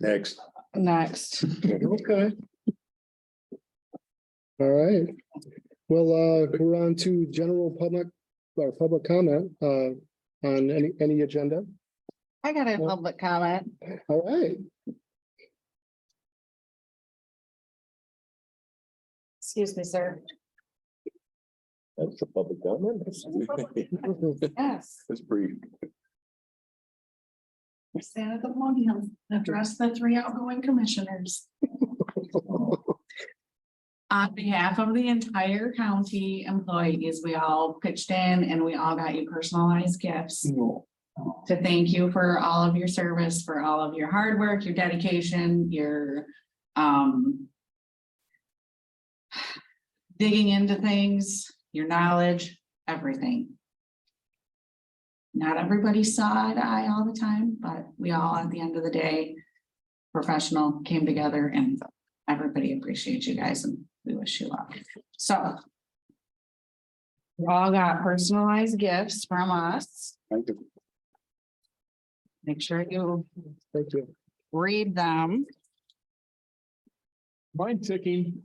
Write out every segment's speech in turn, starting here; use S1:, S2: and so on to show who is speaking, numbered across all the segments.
S1: Next.
S2: next.
S3: Okay. All right. Well, uh, we're on to general public, or public comment, uh, on any, any agenda.
S2: I got a
S3: Well-
S2: public comment.
S3: All right.
S2: Excuse me, sir.
S1: That's the public comment.
S2: Yes.
S1: That's brief.
S4: Stand at the podium, and address the three outgoing commissioners. On behalf of the entire county employees, we all pitched in and we all got you personalized gifts to thank you for all of your service, for all of your hard work, your dedication, your um digging into things, your knowledge, everything. Not everybody saw eye to eye all the time, but we all, at the end of the day, professional came together and everybody appreciates you guys and we wish you luck. So we all got personalized gifts from us
S1: Thank you.
S4: make sure you
S3: Thank you.
S4: read them.
S5: Mine ticking.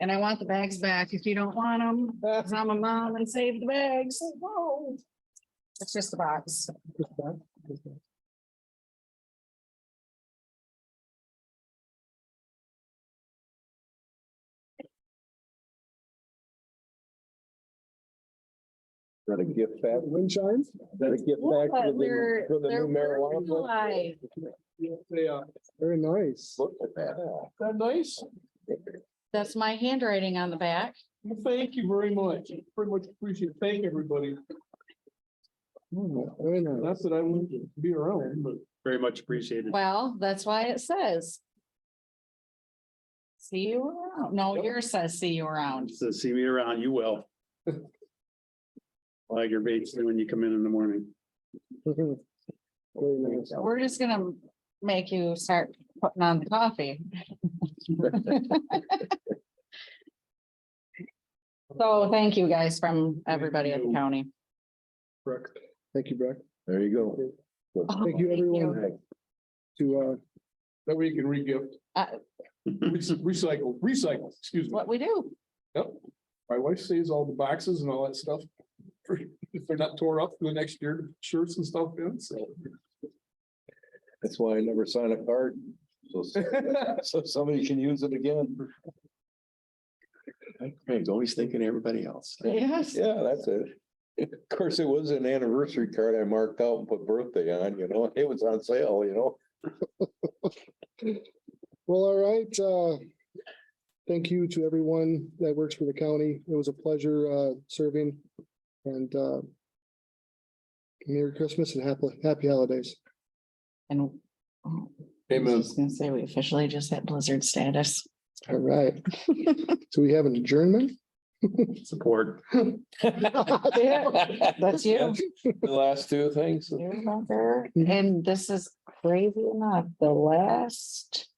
S2: And I want the bags back if you don't want them, because I'm a mom and save the bags. It's just a box.
S1: Got a gift back.
S3: Wind chimes?
S1: Got a gift back for the new- for the new marijuana. bill?
S3: Very nice.
S1: Look at that.
S5: uh, That nice?
S2: That's my handwriting on the back.
S5: Well, Thank you very much. Pretty much appreciate, it. thank everybody.
S3: Very nice.
S5: That's that I wouldn't be around, but. Very much appreciated.
S2: Well, that's why it says. See you around. No, yours says see you around.
S6: So see me around, you will. Like your baits when you come in in the morning.
S3: Very nice.
S2: We're just gonna make you start putting on the coffee. So thank you guys from everybody at the county.
S3: Thank you, Brett.
S1: There you go.
S3: Thank you, everyone, to, uh,
S5: That way you can re-gift.
S2: Uh.
S5: Rec- Recycle, recycle, excuse me.
S2: What we do.
S5: My wife saves all the boxes and all that stuff. for- If they're not tore up for the next year, shirts and stuff in, so.
S1: That's why I never sign a card. So, so somebody can use it again. Craig's always thinking of everybody else.
S2: Yes.
S1: Yeah, that's it. Of course, it was an anniversary card I marked out and put birthday on, you know, it was on sale, you know.
S3: Well, all right, uh, thank you to everyone that works for the county. It was a pleasure, uh, serving and, uh, Merry Christmas and happy, happy holidays.
S2: And. I
S5: Amen.
S2: was gonna say, we officially just hit blizzard status.
S3: All right. So we have an adjournment?
S6: Support.
S2: That's you.
S1: The last two things.
S2: You remember,
S3: Mm-hmm.
S2: and this is crazy enough, the last.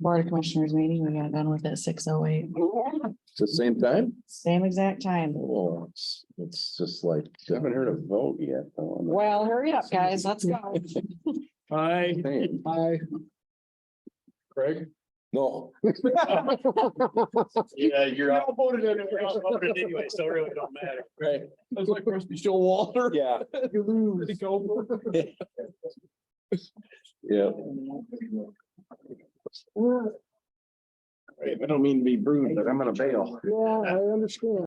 S2: Board of Commissioners meeting, we got done with at six oh eight,
S1: It's the same time?
S2: same exact time.
S1: Well, it's, it's just like, I haven't heard a vote yet. though, on the-
S2: Well, hurry up, guys, let's go.
S5: Hi,
S1: Same.
S3: Aye.
S5: Craig.
S1: No,
S6: Yeah, you're
S5: all voted anyway.
S6: anyway, so it really don't matter.
S1: right,
S5: That's like Rusty Showalter.
S1: yeah,
S5: You lose.
S1: yeah. I don't mean to be rude, but I'm gonna bail.
S3: Yeah, I understand.